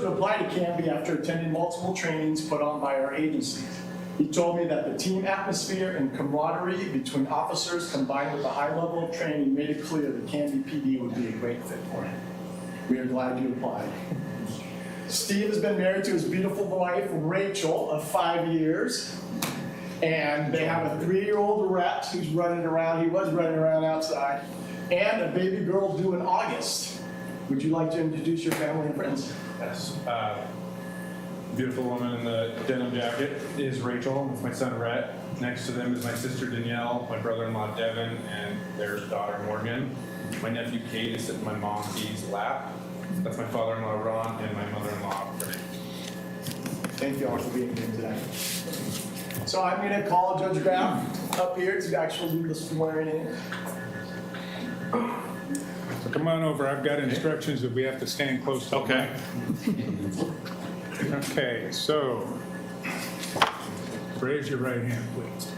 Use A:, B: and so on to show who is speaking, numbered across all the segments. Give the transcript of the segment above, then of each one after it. A: to apply to Canby after attending multiple trainings put on by our agency. He told me that the team atmosphere and camaraderie between officers combined with the high level of training made it clear that Canby PD would be a great fit for him. We are glad you applied. Steve has been married to his beautiful wife, Rachel, of five years. And they have a three-year-old rat who's running around, he was running around outside, and a baby girl due in August. Would you like to introduce your family and friends?
B: Yes. Uh, beautiful woman in the denim jacket is Rachel with my son Rhett. Next to them is my sister Danielle, my brother-in-law Devin, and their daughter Morgan. My nephew Kate is sitting in my mom Dee's lap. That's my father-in-law Ron and my mother-in-law Renee.
A: Thank you all for being here today. So I'm gonna call Judge Graff up here to actually do the swearing in.
C: So Come on over, I've got instructions that we have to stand close to. Okay. Okay, so, raise your right hand, please.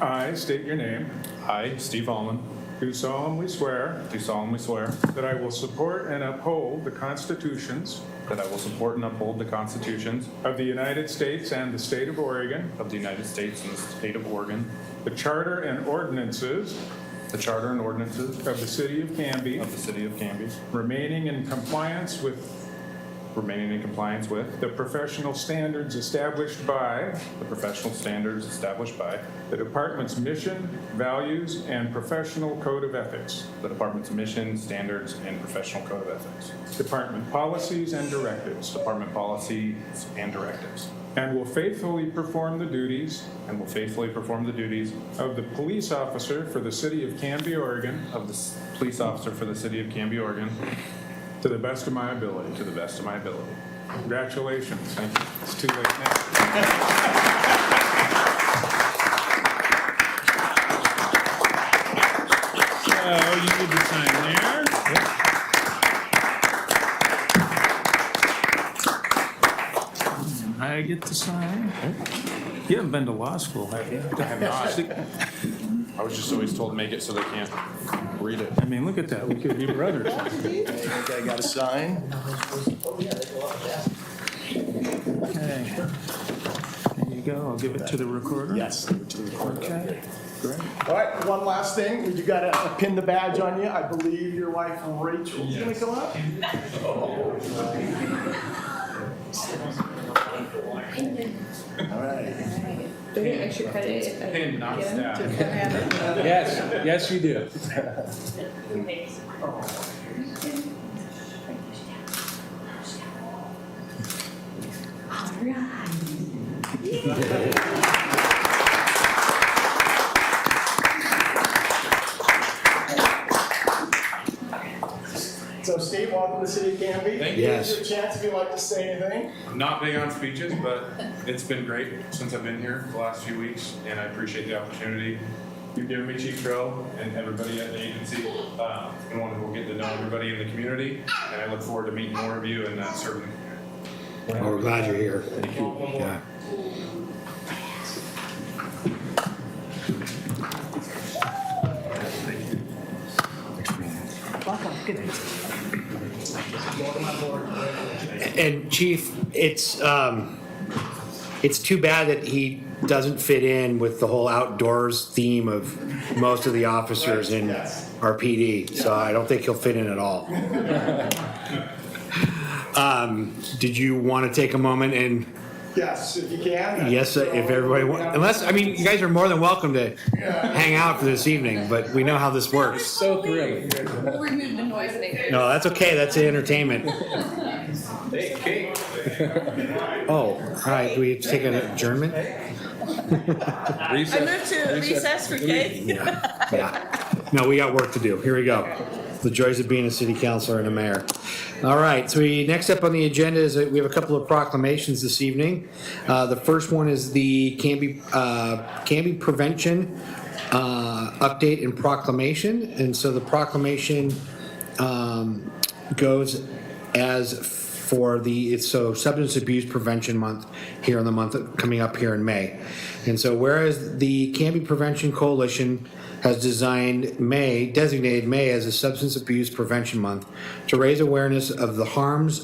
C: I state your name,
B: I, Steve Allman,
C: do solemnly swear
B: do solemnly swear
C: that I will support and uphold the constitutions
B: that I will support and uphold the constitutions
C: of the United States and the state of Oregon,
B: of the United States and the state of Oregon,
C: the charter and ordinances
B: the charter and ordinances
C: of the city of Canby,
B: of the city of Canby,
C: remaining in compliance with
B: remaining in compliance with
C: the professional standards established by
B: the professional standards established by
C: The department's mission, values, and professional code of ethics,
B: the department's mission, standards, and professional code of ethics,
C: department policies and directives,
B: department policies and directives,
C: and will faithfully perform the duties
B: and will faithfully perform the duties
C: of the police officer for the city of Canby, Oregon,
B: of the s- police officer for the city of Canby, Oregon,
C: to the best of my ability.
B: to the best of my ability.
C: Congratulations.
B: Thank you.
C: It's too late now.
D: So you need to sign there. And I get to sign. You haven't been to law school, have you?
B: I have not. I was just always told make it so they can't read it.
D: I mean, look at that, we could be brothers.
A: Okay, I got a sign.
D: Okay. There you go, I'll give it to the recorder.
A: Yes.
D: Okay. Great.
A: All right, one last thing, you gotta pin the badge on you. I believe your wife Rachel is gonna come up. All right.
E: Do we get extra credit if I
B: Pin, not
E: get them to
B: staff.
E: come have
D: Yes, yes, you do.
E: it? All right.
A: So Steve, welcome to the city of Canby.
B: Thank
A: you. Here's your chance if you'd like to say anything.
B: I'm not big on speeches, but it's been great since I've been here the last few weeks, and I appreciate the opportunity you've given me, Chief Crow, and everybody at the agency. Uh, and want to get to know everybody in the community, and I look forward to meeting more of you and uh, serving the community.
F: Well, we're glad you're here. Thank you. Yeah. And Chief, it's, um, it's too bad that he doesn't fit in with the whole outdoors theme of most of the officers in
A: Yes.
F: our PD. So I don't think he'll fit in at all. Um, did you want to take a moment and,
A: Yes, if you can.
F: yes, if everybody, wa- unless, I mean, you guys are more than welcome to hang out for this evening, but we know how this works.
D: So thrilling.
E: We'll remove the noise maker.
F: No, that's okay. That's the entertainment. Oh, all right. Do we have to take an adjournment?
G: I move to recess for K.
F: Yeah. No, we got work to do. Here we go. The joys of being a city councilor and a mayor. All right, so we, next up on the agenda is that we have a couple of proclamations this evening. Uh, the first one is the Canby, uh, Canby Prevention, uh, update and proclamation. And so the proclamation, um, goes as for the it's so substance abuse prevention month here in the month coming up here in May. And so whereas the Canby Prevention Coalition has designed May designated May as a substance abuse prevention month to raise awareness of the harms